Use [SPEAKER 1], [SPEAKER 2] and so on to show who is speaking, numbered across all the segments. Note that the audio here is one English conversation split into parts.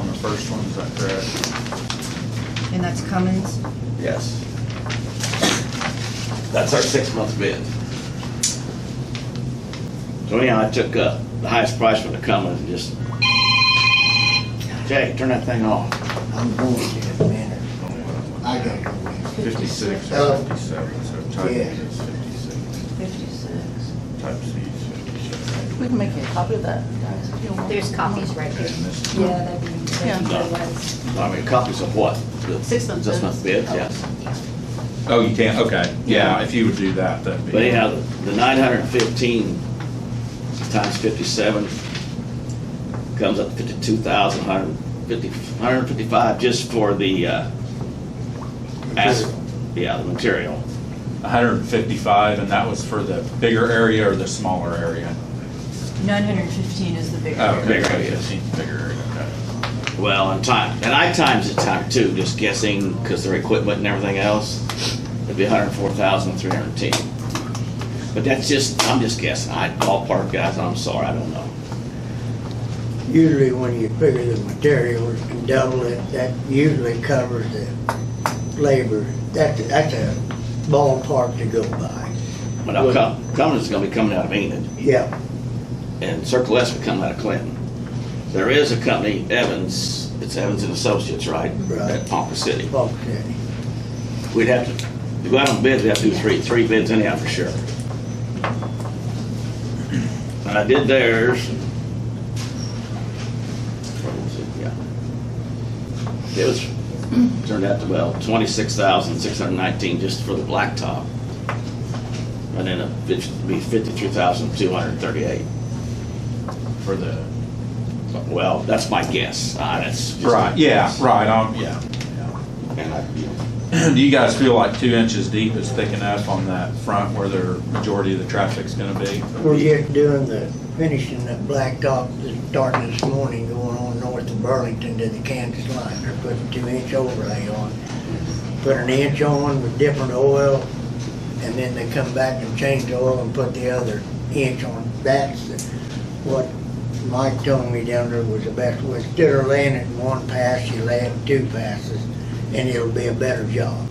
[SPEAKER 1] first one, is that correct?
[SPEAKER 2] And that's Cummins?
[SPEAKER 3] Yes. That's our six-month bid. So anyhow, I took uh, the highest price when it comes and just, Jay, turn that thing off.
[SPEAKER 4] I'm going to a minute. I gotta go in.
[SPEAKER 1] Fifty-six or
[SPEAKER 4] Oh.
[SPEAKER 1] fifty-seven, so type B
[SPEAKER 4] Yeah.
[SPEAKER 1] is fifty-six,
[SPEAKER 2] Fifty-six.
[SPEAKER 1] type C is fifty-seven.
[SPEAKER 5] We can make you a copy of that, guys, if you want.
[SPEAKER 6] There's copies right
[SPEAKER 1] And
[SPEAKER 6] there.
[SPEAKER 1] this one,
[SPEAKER 7] Yeah, that'd be, that'd be
[SPEAKER 3] Yeah.
[SPEAKER 7] good ones.
[SPEAKER 3] uh, I mean, copies of what? The
[SPEAKER 5] Six-month
[SPEAKER 3] Six-month
[SPEAKER 5] bids.
[SPEAKER 3] bids, yes.
[SPEAKER 1] Oh, you can, okay, yeah, if you would do that, that'd be.
[SPEAKER 3] But anyhow, the nine hundred and fifteen times fifty-seven comes up to fifty-two thousand, hundred and fifty, hundred and fifty-five just for the, uh, asphalt, yeah, the material.
[SPEAKER 1] hundred and fifty-five, and that was for the bigger area or the smaller area?
[SPEAKER 2] Nine hundred and fifteen is the bigger.
[SPEAKER 1] Oh, okay,
[SPEAKER 3] Bigger area.
[SPEAKER 1] fifteen, bigger area, okay.
[SPEAKER 3] Well, and time, and I times it time too, just guessing, because their equipment and everything else, it'd be hundred and four thousand, three hundred and ten. But that's just, I'm just guessing, I ballpark guys, I'm sorry, I don't know.
[SPEAKER 4] Usually when you figure the materials and double it, that usually covers the labor. That's, that's a ballpark to go by.
[SPEAKER 3] But I'll come, Cummins is gonna be coming out of Enid.
[SPEAKER 4] Yeah,
[SPEAKER 3] and Circle S would come out of Clinton. There is a company, Evans, it's Evans and Associates, right?
[SPEAKER 4] Right.
[SPEAKER 3] At Ponca City.
[SPEAKER 4] bulk city.
[SPEAKER 3] We'd have to, to go out on bids, we'd have to do three, three bids anyhow for sure. And I did theirs. What was it? Yeah. It was, turned out to, well, twenty-six thousand, six hundred nineteen just for the blacktop. And then it'd be fifty-three thousand, two hundred thirty-eight.
[SPEAKER 1] For the,
[SPEAKER 3] Well, that's my guess. Uh, that's just my
[SPEAKER 1] right, yeah,
[SPEAKER 3] guess.
[SPEAKER 1] right, um, yeah.
[SPEAKER 3] And I-
[SPEAKER 1] Do you guys feel like two inches deep is thick enough on that front where the majority of the traffic's gonna be?
[SPEAKER 4] We're just doing the, finishing the blacktop that's starting this morning going on north of Burlington to the Kansas line. They're putting two inch overlay on. Put an inch on with different oil and then they come back and change the oil and put the other inch on. That's the- what Mike told me down there was the best way. Instead of laying it in one pass, you lay it in two passes and it'll be a better job.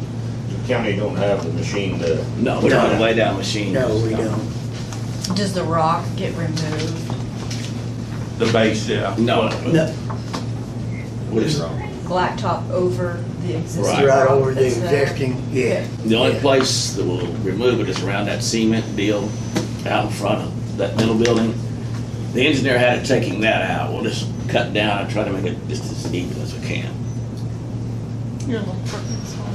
[SPEAKER 8] The county don't have the machine to,
[SPEAKER 3] No, we're not a lay-down machine.
[SPEAKER 4] No, we don't.
[SPEAKER 2] Does the rock get removed?
[SPEAKER 1] The base, yeah.
[SPEAKER 3] No.
[SPEAKER 4] No,
[SPEAKER 3] What is wrong?
[SPEAKER 2] Blacktop over the existing
[SPEAKER 3] Right.
[SPEAKER 4] right
[SPEAKER 2] rock
[SPEAKER 4] over the
[SPEAKER 2] that's there?
[SPEAKER 4] existing, yeah.
[SPEAKER 3] The only
[SPEAKER 4] Yeah.
[SPEAKER 3] place that will remove it is around that cement deal out in front of that middle building. The engineer had it taking that out. We'll just cut down and try to make it just as even as we can.
[SPEAKER 5] Your little parking spot.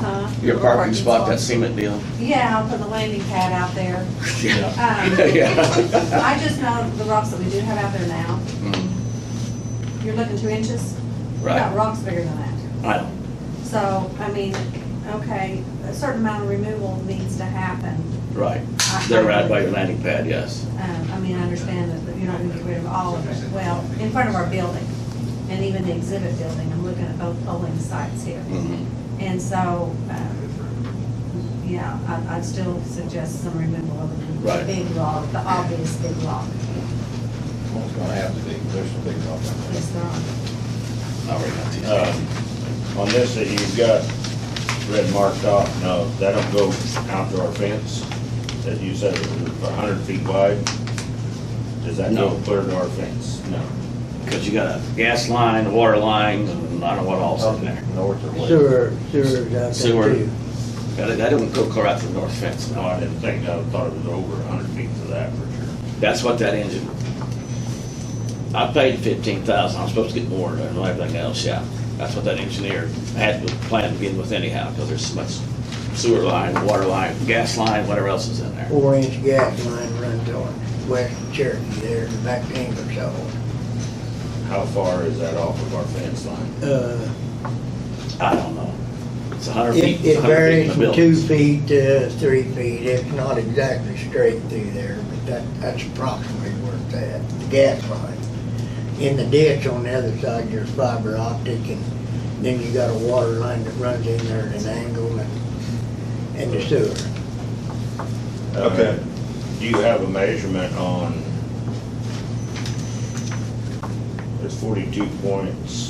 [SPEAKER 7] Huh?
[SPEAKER 3] Your parking spot, that cement deal?
[SPEAKER 7] Yeah, I'll put the landing pad out there.
[SPEAKER 3] Yeah.
[SPEAKER 7] Um,
[SPEAKER 3] Yeah.
[SPEAKER 7] I just know the rocks that we do have out there now.
[SPEAKER 3] Mm,
[SPEAKER 7] You're looking two inches? We got
[SPEAKER 3] Right.
[SPEAKER 7] rocks bigger than that.
[SPEAKER 3] I don't,
[SPEAKER 7] So, I mean, okay, a certain amount of removal needs to happen.
[SPEAKER 3] right. They're right by your landing pad, yes.
[SPEAKER 7] Um, I mean, I understand that that you're not gonna get rid of all of it. Well, in front of our building and even the exhibit building, I'm looking at both polling sites here.
[SPEAKER 3] Mhm.
[SPEAKER 7] And so, um, yeah, I- I'd still suggest some removal of the
[SPEAKER 3] Right.
[SPEAKER 7] big log, the obvious big log.
[SPEAKER 8] well, it's gonna have to be, there's some big problem.
[SPEAKER 7] Yes, there are.
[SPEAKER 3] I already got these.
[SPEAKER 8] Uh, On this that you've got red marked off, no, that don't go out to our fence, that you said it was a hundred feet wide? Does that go
[SPEAKER 3] No.
[SPEAKER 8] clear to our fence? No.
[SPEAKER 3] Because you got a gas line, water line, and I don't know what else in there.
[SPEAKER 8] North or west?
[SPEAKER 4] Sewer, sewer's out there
[SPEAKER 3] Sewer.
[SPEAKER 4] too.
[SPEAKER 3] That, that don't go clear out to the north fence,
[SPEAKER 8] No,
[SPEAKER 3] no.
[SPEAKER 8] I didn't think, I thought it was over a hundred feet to that for sure.
[SPEAKER 3] That's what that engine, I paid fifteen thousand, I'm supposed to get more and everything else, yeah. That's what that engineer had to plan to begin with anyhow, because there's so much sewer line, water line, gas line, whatever else is in there.
[SPEAKER 4] Four inch gas line runs on west Cherokee there, and back to Ingersoll.
[SPEAKER 8] How far is that off of our fence line?
[SPEAKER 4] Uh,
[SPEAKER 3] I don't know. It's a hundred feet. it's
[SPEAKER 4] It it
[SPEAKER 3] 100 feet
[SPEAKER 4] varies
[SPEAKER 3] from
[SPEAKER 4] from
[SPEAKER 3] the
[SPEAKER 4] two
[SPEAKER 3] buildings.
[SPEAKER 4] feet to three feet. It's not exactly straight through there, but that, that's approximately where it's at, the gas line. In the ditch on the other side, there's fiber optic, and then you got a water line that runs in there at an angle and, and the sewer.
[SPEAKER 1] Okay.
[SPEAKER 8] Uh, Do you have a measurement on, it's forty-two point seven